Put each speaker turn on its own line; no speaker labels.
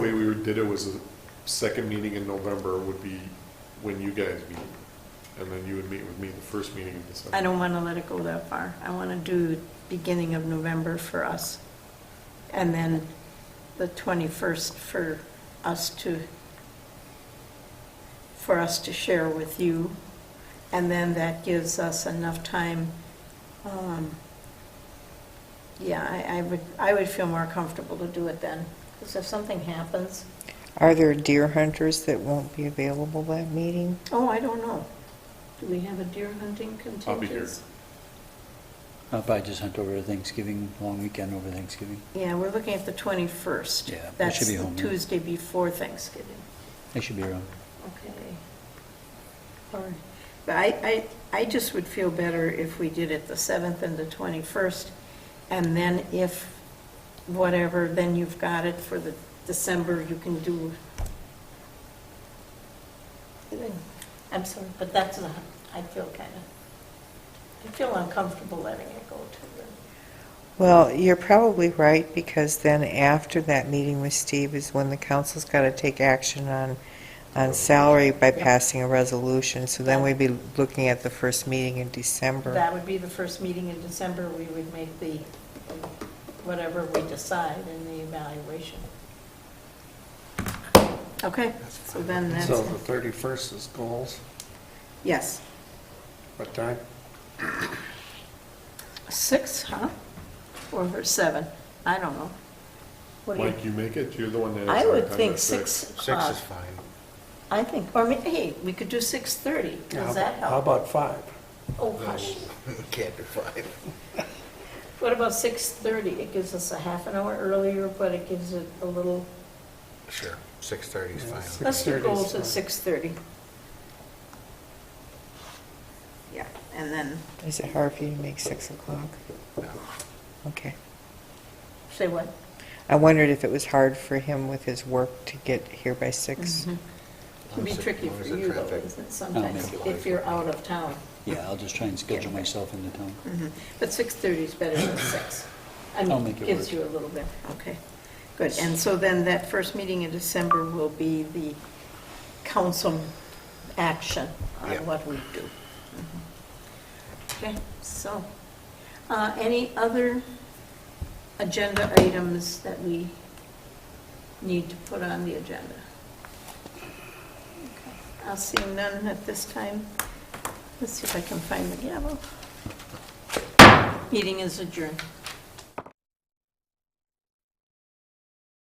did it was the second meeting in November would be when you guys meet. And then you would meet with me the first meeting in December.
I don't want to let it go that far. I want to do beginning of November for us. And then the 21st for us to, for us to share with you. And then that gives us enough time. um, Yeah, I, I would, I would feel more comfortable to do it then. Because if something happens,
Are there deer hunters that won't be available that meeting?
oh, I don't know. Do we have a deer hunting contingency?
I'll be here.
I'll probably Uh, just hunt over Thanksgiving, long weekend over Thanksgiving.
Yeah, we're looking at the 21st.
Yeah, we should be home
That's
then.
the Tuesday before Thanksgiving.
I should be around.
Okay. All right. But I, I, I just would feel better if we did it the 7th and the 21st, and then if whatever, then you've got it for the December, you can do. I'm sorry, but that's, not- I feel kind of, I feel uncomfortable letting it go to the
Well, you're probably right, because then after that meeting with Steve is when the council's got to take action on, on salary by
Yeah.
passing a resolution, so then we'd be looking at the first meeting in December.
That would be the first meeting in December, we would make the, whatever we decide in the evaluation. Okay, so then
So the thirty-first is goals,
yes.
what time?
Six, huh? Or seven, I don't know. What do you-
Mike, you make it? You're the one that. has
I
hard
would
time
think
at
six
Six
o'clock.
is fine.
I think, or, ma- hey, we could do 6:30,
How-
does that
How
help?
about five?
Oh, hush.
Can't do five.
What about 6:30? It gives us a half an hour earlier, but it gives it a little,
Sure, six thirty is
Yeah,
fine.
six-
let's do
6:30 is
goals at
fine.
6:30. Yeah, and then,
Is it hard for you to make 6 o'clock?
No.
Okay.
say what?
I wondered if it was hard for him with his work to get here by
It
6.
Can be
As long as the-
tricky
as long
for
as the
you though,
traffic-
isn't it, sometimes,
make it.
if you're out of town.
Oh,
Mm-hmm.
Yeah, I'll just try and schedule myself into town.
But 6:30 is better than 6. I
I'll
mean,
make it
gives
work.
you a little bit, okay. Good, and so then that first meeting in December will be the council action on
Yeah.
what we do. Okay, so, uh, any other agenda items that we need to put on the agenda? Okay, I'll see none at this time. Let's see if I can find the gavel. Meeting is adjourned.